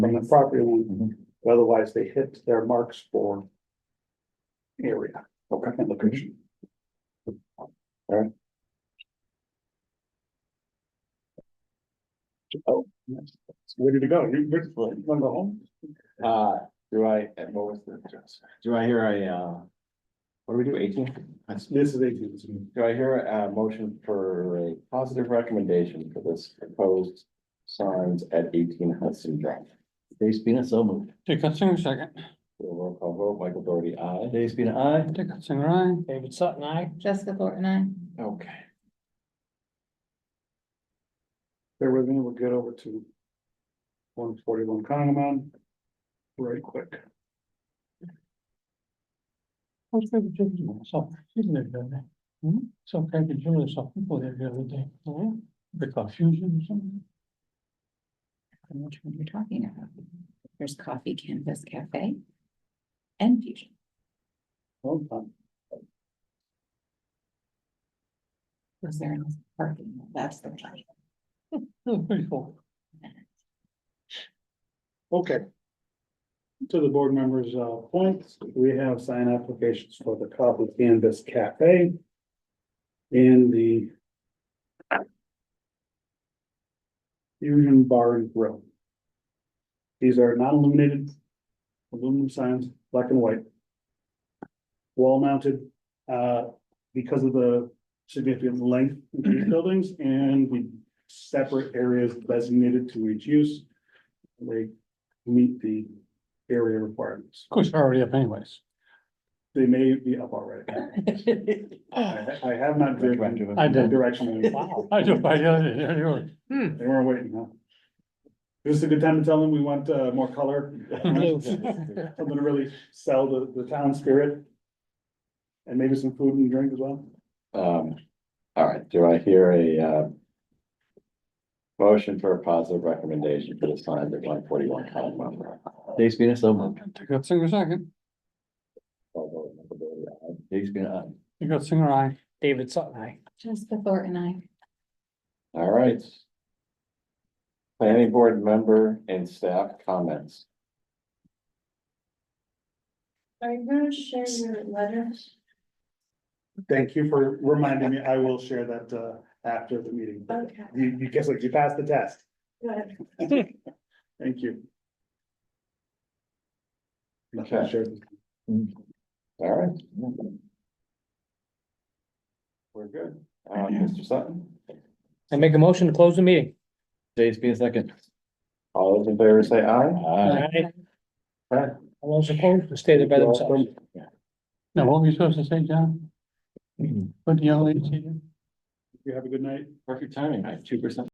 from the property line. Otherwise, they hit their marks for area. Okay. And location. Oh, Ready to go. You, you wanna go home? uh, do I, what was the, do I hear a, uh, what do we do, eighteen? This is eighteen. Do I hear a motion for a positive recommendation for this proposed signs at eighteen Hudson Drive? Dave Spina, so moved. Dick Singer, second. Roll call vote, Michael Doherty, aye. Dave Spina, aye. Dick Singer, aye. David Sutton, I. Jessica Thornton, I. Okay. There we're gonna get over to one forty-one Congamon right quick. I was thinking to myself, she lived down there. Hmm? So I could hear there's some people there the other day. Oh, yeah. The confusion or something. don't know Which one you're talking about? There's Coffee Canvas Cafe. And Fusion. Well done. Was there enough parking? That's the question. It was pretty cool. Okay. To the board members' uh, points, we have sign applications for the Coffee Canvas Cafe. And the. Fusion Bar and Grill. These are non-illuminated. Aluminum signs, black and white. Wall mounted, uh, because of the significant length of these buildings and the separate areas designated to each use. They meet the area requirements. Of course, they're already up anyways. They may be up already. I I have not driven I in that did. direction. Wow. I just, I, yeah, They weren't waiting, huh? This is a good time to tell them we want uh, more color. yeah. I'm gonna really sell the, the town spirit. And maybe some food and drink as well. Um, all right, do I hear a, uh, motion for a positive recommendation for the signs at one forty-one Conwell Drive? Dave Spina, so moved. Dick Singer, second. Roll call vote, Michael Doherty, aye. Dave Spina, aye. Dick Singer, aye. David Sutton, I. Jessica Thornton, I. All right. Planning board member and staff comments. Are you gonna share your letter? Thank you for reminding me. I will share that, uh, after the meeting. Okay, You, you guess what? You passed the test. good. Thank you. Okay. Sure. All right. We're good. Uh, Mr. Sutton, I make a motion to close the meeting. Dave Spina, second. all those in favor say aye. Aye. Aye. Aye. All those opposed, will stay there by themselves. Now, what were you supposed to say, John? What the young lady said? You have a good night. Perfect timing, two percent.